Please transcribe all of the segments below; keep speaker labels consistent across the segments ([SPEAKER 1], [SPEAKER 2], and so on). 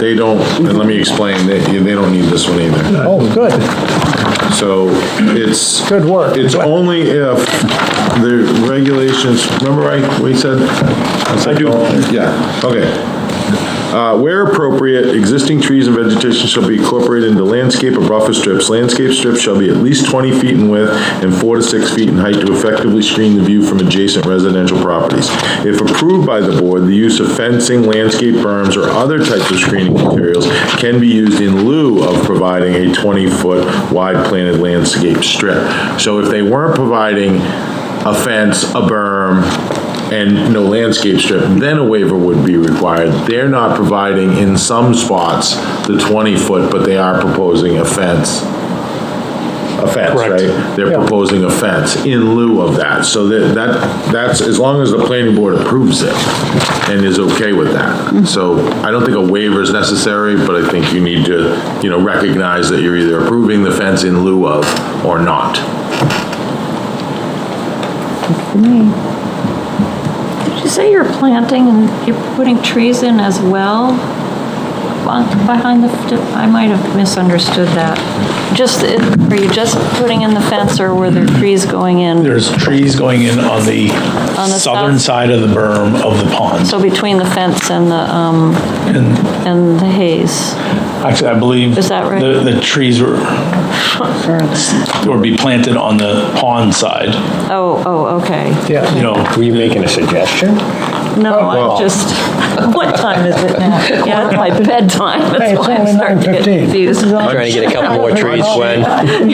[SPEAKER 1] They don't, and let me explain, they, they don't need this one either.
[SPEAKER 2] Oh, good,
[SPEAKER 1] So it's.
[SPEAKER 2] Good work.
[SPEAKER 1] It's only if the regulations, remember I, we said? I do. Yeah, okay. Uh, where appropriate, existing trees and vegetation shall be incorporated into landscape or buffer strips. Landscape strips shall be at least twenty feet in width and four to six feet in height to effectively screen the view from adjacent residential properties. If approved by the board, the use of fencing, landscape berms, or other types of screening materials can be used in lieu of providing a twenty-foot wide planted landscape strip. So if they weren't providing a fence, a berm, and no landscape strip, then a waiver would be required. They're not providing in some spots the 20-foot, but they are proposing a fence. A fence,
[SPEAKER 3] Correct.
[SPEAKER 1] right? They're
[SPEAKER 2] Yeah.
[SPEAKER 1] proposing a fence in lieu of that. So that, that, that's, as long as the planning board approves it and is okay with that. So I don't think a waiver is necessary, but I think you need to, you know, recognize that you're either approving the fence in lieu of or not.
[SPEAKER 4] Did you say you're planting and you're putting trees in as well? Well, Behind the, I might have misunderstood that. Just, were you just putting in the fence or were there trees going in?
[SPEAKER 3] There's trees going in on the
[SPEAKER 4] the
[SPEAKER 3] southern
[SPEAKER 4] south-
[SPEAKER 3] side of the berm of the pond.
[SPEAKER 4] So between the fence and the, um, and the haze?
[SPEAKER 3] Actually, I believe.
[SPEAKER 4] Is that right?
[SPEAKER 3] The, the trees were, would be planted on the pond side,
[SPEAKER 4] Oh, oh, okay.
[SPEAKER 2] yeah.
[SPEAKER 3] you know.
[SPEAKER 5] Were you making a suggestion?
[SPEAKER 4] No,
[SPEAKER 2] Oh,
[SPEAKER 4] I'm just, what time is it now? Yeah, it's my bedtime,
[SPEAKER 2] Hey,
[SPEAKER 4] that's
[SPEAKER 2] it's
[SPEAKER 4] why I'm
[SPEAKER 2] only
[SPEAKER 4] starting to get
[SPEAKER 2] 9:15.
[SPEAKER 4] confused.
[SPEAKER 5] Trying to get a couple more trees, Gwen.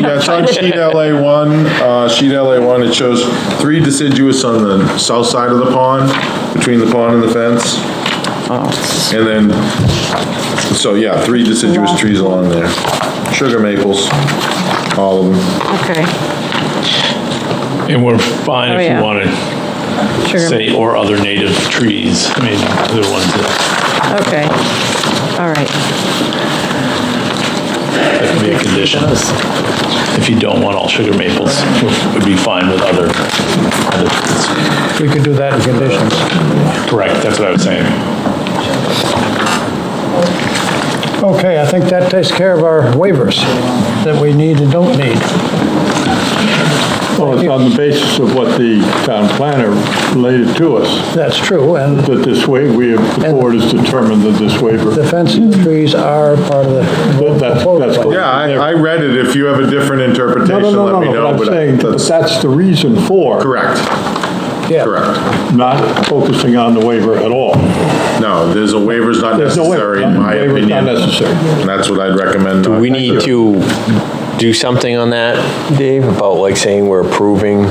[SPEAKER 1] That's on sheet LA one, uh, sheet LA one, it shows three deciduous on the south side of the pond, between the pond and the fence.
[SPEAKER 6] Oh.
[SPEAKER 1] And then, so yeah, three deciduous trees along there. Sugar maples, all of them.
[SPEAKER 4] Okay.
[SPEAKER 3] And we're fine
[SPEAKER 4] Oh,
[SPEAKER 3] if
[SPEAKER 4] yeah.
[SPEAKER 3] you want to
[SPEAKER 4] Sugar,
[SPEAKER 3] say, or other native trees. I mean, the ones that
[SPEAKER 4] okay. All right.
[SPEAKER 3] that could be a condition. If you don't want all sugar maples, would be fine with other, other trees.
[SPEAKER 2] We could do that in conditions.
[SPEAKER 3] Correct, that's what I was saying.
[SPEAKER 2] Okay, I think that takes care of our waivers that we need and don't need.
[SPEAKER 6] Well, it's on the basis of what the town planner related to us,
[SPEAKER 2] That's true, and
[SPEAKER 6] that this way, we, have- the board has determined that this
[SPEAKER 2] the
[SPEAKER 6] waiver,
[SPEAKER 2] fence and the trees are part of the.
[SPEAKER 6] that's- that's correct.
[SPEAKER 1] Yeah, I, I read it, if you have a different
[SPEAKER 6] no,
[SPEAKER 1] interpretation,
[SPEAKER 6] no, no,
[SPEAKER 1] let me
[SPEAKER 6] no,
[SPEAKER 1] know,
[SPEAKER 6] no, but I'm
[SPEAKER 1] but
[SPEAKER 6] saying, that
[SPEAKER 1] that's
[SPEAKER 6] that's the reason for
[SPEAKER 1] correct,
[SPEAKER 2] Yeah.
[SPEAKER 1] correct.
[SPEAKER 6] not focusing on the waiver at all.
[SPEAKER 1] No, there's a waiver's not
[SPEAKER 6] There's no waiver.
[SPEAKER 1] necessary, in my
[SPEAKER 6] Waiver's
[SPEAKER 1] opinion.
[SPEAKER 6] not necessary.
[SPEAKER 1] And that's what I'd recommend.
[SPEAKER 5] Do we need to do something on that, Dave, about like saying we're approving?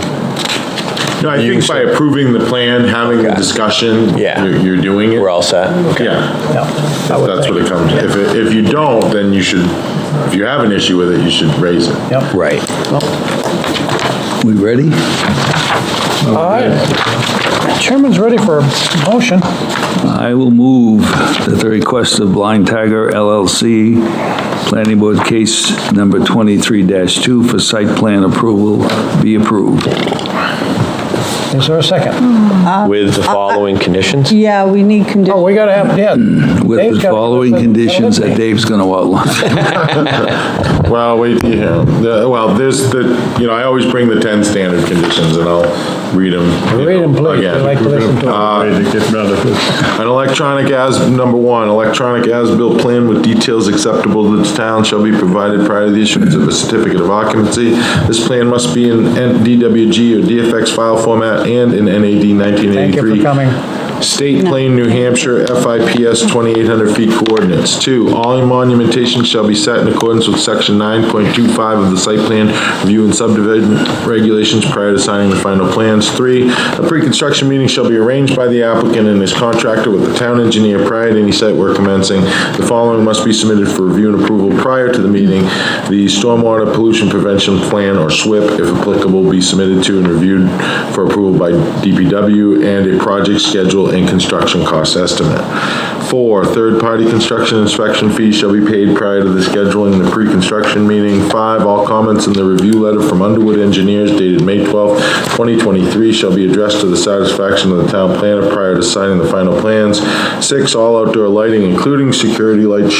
[SPEAKER 1] No, I think
[SPEAKER 5] use
[SPEAKER 1] by
[SPEAKER 5] it.
[SPEAKER 1] approving the plan, having the
[SPEAKER 5] Okay.
[SPEAKER 1] discussion,
[SPEAKER 5] Yeah.
[SPEAKER 1] you're you're doing it.
[SPEAKER 5] We're all set? Okay.
[SPEAKER 1] Yeah,
[SPEAKER 2] Yeah, I would
[SPEAKER 1] that's
[SPEAKER 2] think.
[SPEAKER 1] what it comes, if, it- if you don't, then you should, if you have an issue with it, you should raise it.
[SPEAKER 2] Yep.
[SPEAKER 5] Right.
[SPEAKER 7] We ready?
[SPEAKER 2] All right. Chairman's ready for a motion.
[SPEAKER 7] I will move that the request of Blind Tiger LLC, Planning Board Case Number 23-2 for site plan approval be approved.
[SPEAKER 2] Is there a second?
[SPEAKER 5] With the following conditions?
[SPEAKER 8] Yeah, we need
[SPEAKER 2] Oh,
[SPEAKER 8] conditions.
[SPEAKER 2] we gotta have, yeah.
[SPEAKER 7] With
[SPEAKER 2] Dave's
[SPEAKER 7] the
[SPEAKER 2] gotta-
[SPEAKER 7] following conditions that Dave's going to outline.
[SPEAKER 1] Well, wait, till you hear 'em. The- well, there's the, you know, I always bring the 10 standard conditions, and I'll read them.
[SPEAKER 2] Read 'em, please. We like to listen to 'em.
[SPEAKER 6] Way to get rid of it.
[SPEAKER 1] Uh, An electronic as, number one, electronic as-built plan with details acceptable to the town shall be provided prior to the issuance of a certificate of occupancy. This plan must be in N- DWG or DFX file format and in NAD 1983.
[SPEAKER 2] Thank you for coming.
[SPEAKER 1] State Plain, New Hampshire, FIPS 2800 feet coordinates. Two, all monumentation shall be set in accordance with section 9.25 of the site plan review and subdivision regulations prior to signing the final plans. Three, a pre-construction meeting shall be arranged by the applicant and his contractor with the town engineer prior to any site work commencing. The following must be submitted for review and approval prior to the meeting. The stormwater pollution prevention plan, or SWIP, if applicable, be submitted to and reviewed for approval by DPW, and a project schedule approval and construction cost estimate. Four, third-party construction inspection fees shall be paid prior to the scheduling of the pre-construction meeting. Five, all comments in the review letter from Underwood Engineers dated May 12, 2023 shall be addressed to the satisfaction of the town planner prior to signing the final plans. Six, all outdoor lighting, including security lights,